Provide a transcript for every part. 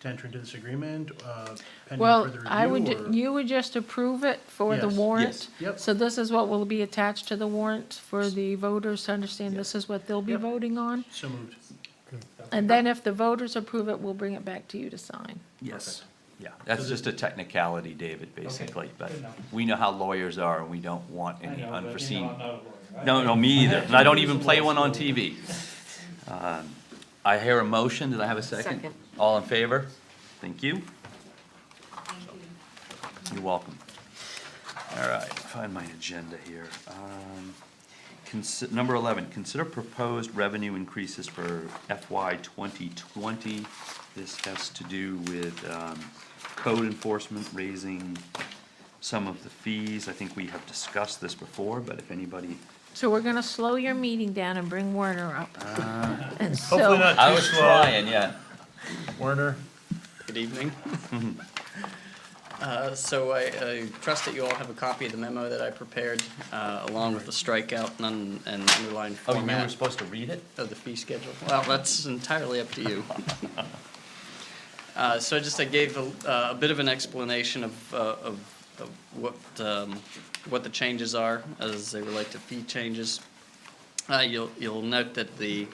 to enter into this agreement, uh, pending Well, further review? I would, or- you would just approve it for the Yes. warrant? Yes. Yep. So this is what will be attached to the warrant for the voters to understand this is what they'll be Yep. voting on? So moved. And then if the voters approve it, we'll bring it back to you to sign. Yes, yeah, So that's the- just a technicality, David, basically, but good enough. we know how lawyers are, and we don't want I know, any but, you know, I'm unforeseen. not a lawyer. I- No, no, me either, and I don't even play one on I have to do TV. Um, I hear a motion, did I have a second? Second. All in favor? Thank you, Thank you. you're welcome. All right, find my agenda here. Um, consi- Number 11, consider proposed revenue increases for FY 2020. This has to do with um, code enforcement raising some of the fees. I think we have discussed this before, but if anybody So we're gonna slow your meeting down and bring Werner up. And Ah. Hopefully so, not too was slow. trying, yeah. Werner, Good evening. Uh, So I I trust that you all have a copy of the memo that I prepared, uh, along with the strikeout and un- and underlined Oh, you were format supposed to read it? of the fee schedule. Well, that's entirely up to you. Uh, So I just, I gave a a bit of an explanation of uh, of of what um, what the changes are as they relate to fee changes. Uh, You'll you'll note that the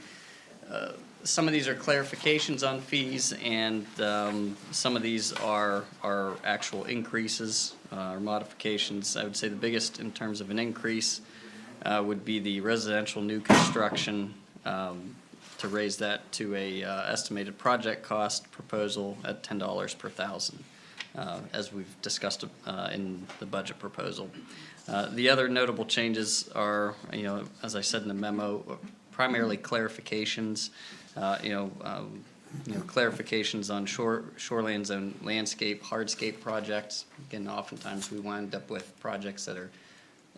some of these are clarifications on fees, and um, some of these are, are actual increases uh, or modifications. I would say the biggest in terms of an increase uh, would be the residential new construction, um, to raise that to a uh, estimated project cost proposal at ten dollars per thousand, uh, as we've discussed uh, in the budget proposal. Uh, The other notable changes are, you know, as I said in the memo, primarily clarifications, uh, you know, um, you know, clarifications on shore, shoreline zone landscape, hardscape projects. Again, oftentimes we wind up with projects that are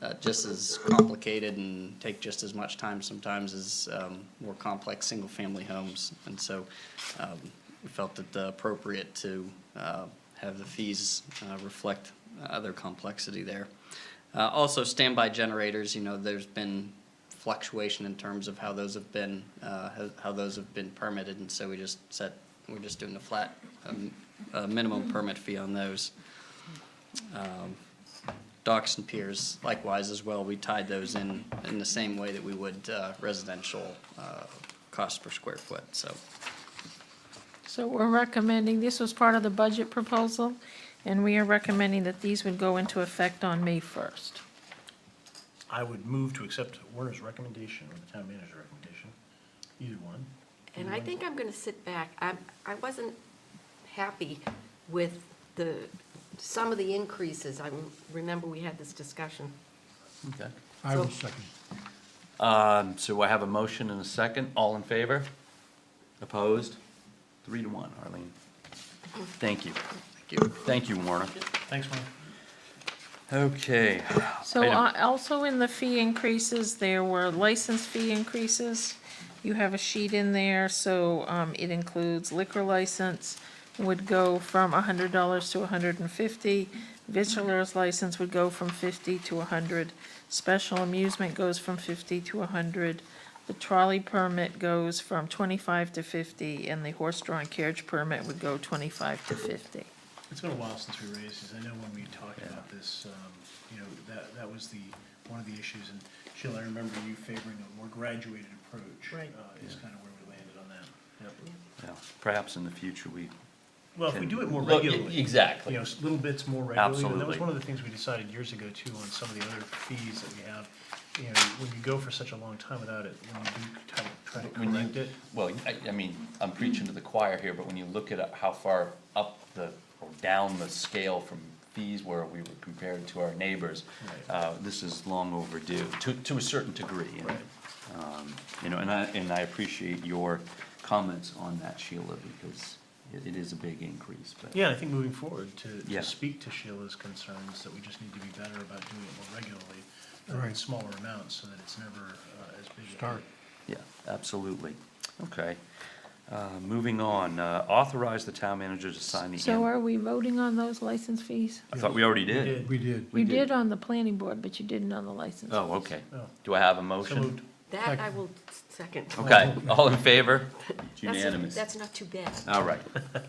uh, just as complicated and take just as much time sometimes as um, more complex single-family homes. And so um, we felt it appropriate to uh, have the fees uh, reflect other complexity there. Uh, Also, standby generators, you know, there's been fluctuation in terms of how those have been, uh, how- how those have been permitted. And so we just set, we're just doing a flat um, uh, minimum permit fee on those docks and piers likewise as well. We tied those in, in the same way that we would uh, residential uh, cost per square foot, so. so we're recommending, this was part of the budget proposal, and we are recommending that these would go into effect on May first. I would move to accept Werner's recommendation or the town manager's recommendation, either one. And I think I'm going to sit back. I, I wasn't happy with the, some of the increases. I remember we had this discussion. Okay. I will So- second. Um, so I have a motion and a second. All in favor? Opposed? Three to one, Arlene. Thank you. Thank you. Thank you, Warner. Thanks, Werner. Okay. So Item- uh, also in the fee increases, there were license fee increases. You have a sheet in there, so um, it includes liquor license would go from hundred dollars to $150. Vitulers license would go from fifty to hundred. Special amusement goes from fifty to hundred. The trolley permit goes from twenty-five to fifty, and the horse-drawn carriage permit would go twenty-five to fifty. It's been a while since we raised this. I know when we talked about this, um, you know, that, that was the, one of the issues. And Sheila, I remember you favoring a more graduated approach. Right. uh, Is kind of where we landed on that. Yep. yeah, Perhaps in the future we. Well, if we can- do it more Look, e- regularly. Exactly. You know, s- little bits more regularly, and that was Absolutely. one of the things we decided years ago too, on some of the other fees that we have. You know, when you go for such a long time without it, when you do try to, try to When you- correct it, Well, I, I mean, I'm preaching to the choir here, but when you look at uh, how far up the, or down the scale from fees where we were compared to our neighbors, Right. uh, this is long overdue, to, to a certain degree. and, Right. um, You know, and I, and I appreciate your comments on that, Sheila, because it, it is a big increase, but. Yeah, I think moving forward, to, Yeah. to speak to Sheila's concerns, that we just need to be better about doing it more regularly, uh, in Right. smaller amounts, so that it's never uh, as big. a- Start. Yeah, absolutely. Okay. Uh, Moving on, uh, authorize the town manager to sign the. So in- are we voting on those license fees? I thought we already We did. did. We did. We You did. did on the planning board, but you didn't on the license. Oh, okay. Oh. Do I have a So motion? moved. Oh, That I will second. Okay, all in favor? It's That's- unanimous. That's not too bad. All right.